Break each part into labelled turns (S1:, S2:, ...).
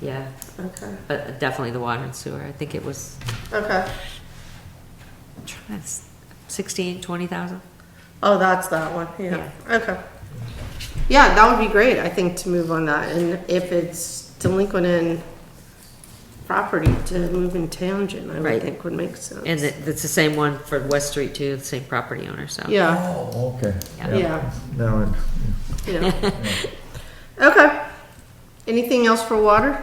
S1: yeah,
S2: Okay,
S1: but definitely the water and sewer. I think it was
S2: okay.
S1: I'm trying to s- sixteen, twenty thousand.
S2: Oh, that's that one, yeah, okay. Yeah, that would be great, I think, to move on that, and if it's delinquent in property, to move in tangent, I
S1: Right.
S2: would think would make sense.
S1: And it, it's the same one for West Street too, the same property owner, so.
S2: Yeah,
S3: Oh, okay.
S1: Yeah.
S2: Yeah.
S3: Now, it-
S2: yeah. Okay, anything else for water?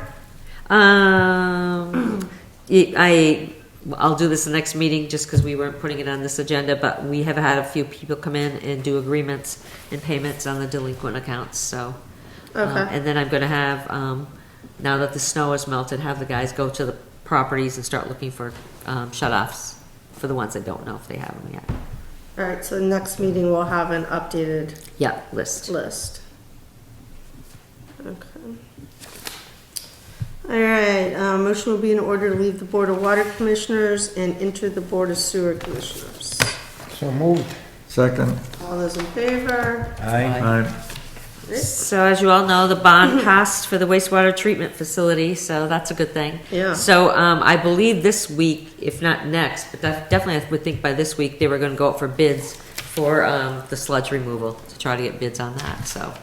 S1: Um, y- I, will do this the next meeting just because we weren't putting it on this agenda, but we have had a few people come in and do agreements and payments on the delinquent accounts, so. um,
S2: Okay.
S1: And then I'm gonna have, um, now that the snow has melted, have the guys go to the properties and start looking for, um, shut-offs for the ones that don't know if they have them yet.
S2: All right, so next meeting we'll have an updated
S1: Yeah, list.
S2: list. Okay. All right, uh, motion will be in order to leave the Board of Water Commissioners and enter the Board of Sewer Commissioners.
S4: So moved.
S3: second,
S2: All those in favor?
S4: Aye.
S3: aye,
S1: So as you all know, the bond passed for the wastewater treatment facility, so that's a good thing.
S2: Yeah.
S1: So, um, I believe this week, if not next, but def- definitely I would think by this week, they were gonna go out for bids for, um, the sludge removal, to try to get bids on that, so,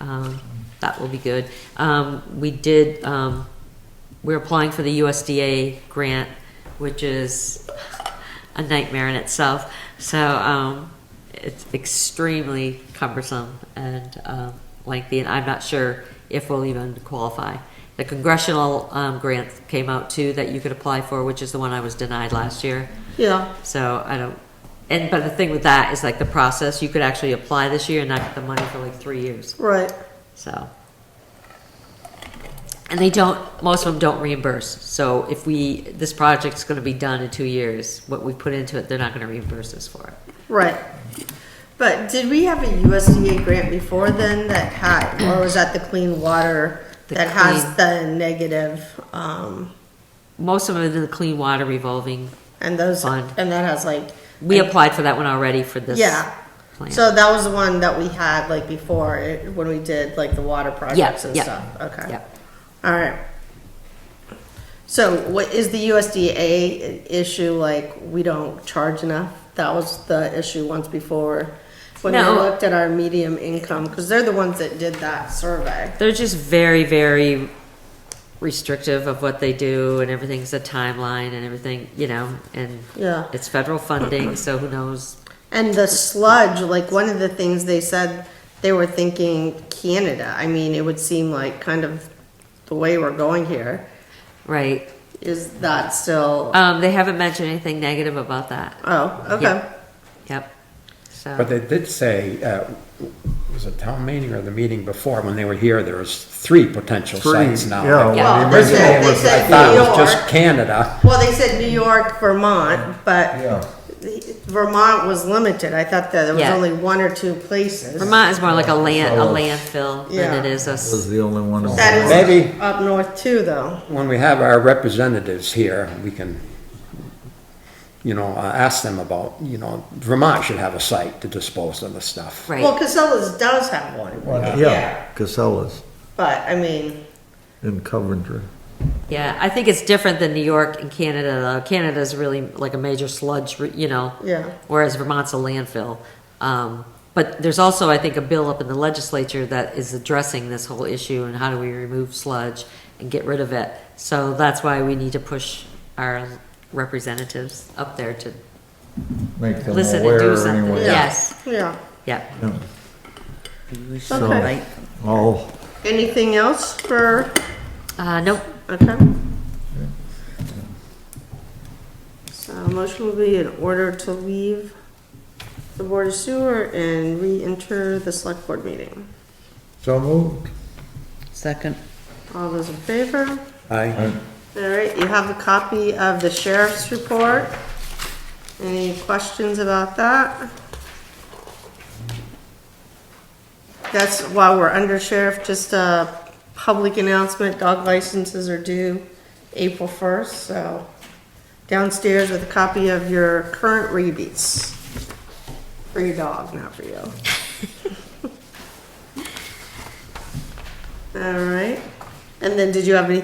S1: um, that will be good. Um, we did, um, we're applying for the USDA grant, which is a nightmare in itself. So um, it's extremely cumbersome and um, lengthy, and I'm not sure if we'll even qualify. The congressional um, grant came out too that you could apply for, which is the one I was denied last year.
S2: Yeah,
S1: So I don't, and but the thing with that is like the process. You could actually apply this year and not get the money for like three years.
S2: right,
S1: So. And they don't, most of them don't reimburse. So if we, this project's gonna be done in two years, what we put into it, they're not gonna reimburse us for it.
S2: right. But did we have a USDA grant before then that had, or was that the clean water
S1: The
S2: that has
S1: clean-
S2: the negative, um,
S1: Most of them are in the clean water revolving.
S2: and those,
S1: Fund.
S2: and that has like.
S1: We applied for that one already for this.
S2: Yeah.
S1: plan.
S2: So that was the one that we had like before, it- when we did like the water projects and
S1: yeah,
S2: stuff, okay.
S1: Yep.
S2: All right. So what is the USDA issue, like, we don't charge enough? That was the issue once before, when we
S1: No.
S2: looked at our medium income, because they're the ones that did that survey.
S1: They're just very, very restrictive of what they do and everything's a timeline and everything, you know, and
S2: Yeah.
S1: it's federal funding, so who knows?
S2: And the sludge, like one of the things they said, they were thinking Canada. I mean, it would seem like kind of the way we're going here.
S1: Right.
S2: Is that still,
S1: Um, they haven't mentioned anything negative about that.
S2: oh, okay.
S1: Yep. So.
S4: But they did say, uh, it was a town meeting or the meeting before, when they were here, there was three potential
S3: Three,
S4: sites now.
S3: yeah, well,
S1: Yeah.
S4: The
S2: they said-
S4: Original
S2: they
S4: was, I
S2: said
S4: thought it
S2: New
S4: was
S2: York.
S4: just Canada.
S2: Well, they said New York, Vermont,
S3: yeah,
S2: but Vermont was limited. I thought that there was
S1: Yeah.
S2: only one or two places.
S1: Vermont is more like a land, a landfill
S2: Yeah.
S1: than it is a.
S3: That
S1: s-
S3: was the only one.
S2: That is
S4: Maybe.
S2: up north too, though.
S4: When we have our representatives here, we can, you know, uh, ask them about, you know, Vermont should have a site to dispose of the stuff.
S2: Well,
S1: Right.
S2: Casellas does have one,
S3: Yeah, Casellas
S2: but I mean,
S3: in Coventry.
S1: Yeah, I think it's different than New York and Canada. though. Canada's really like a major sludge, re- you know.
S2: Yeah.
S1: Whereas Vermont's a landfill. Um, but there's also, I think, a bill up in the legislature that is addressing this whole issue and how do we remove sludge and get rid of it. So that's why we need to push our representatives up there to
S3: Make them
S1: listen and do
S3: aware
S1: something.
S3: anyway.
S1: Yes.
S2: yeah.
S1: Yep.
S3: Yeah.
S2: Okay.
S3: All,
S2: Anything else for,
S1: Uh, nope.
S2: okay? So motion will be in order to leave the Board of Sewer and re-enter the Select Board meeting.
S3: so moved.
S5: Second.
S2: All those in favor?
S4: Aye.
S2: All right, you have a copy of the sheriff's report. Any questions about that? That's while we're under sheriff, just a public announcement, dog licenses are due April first, so downstairs with a copy of your current rebates. For your dog, not for you. All right, and then did you have any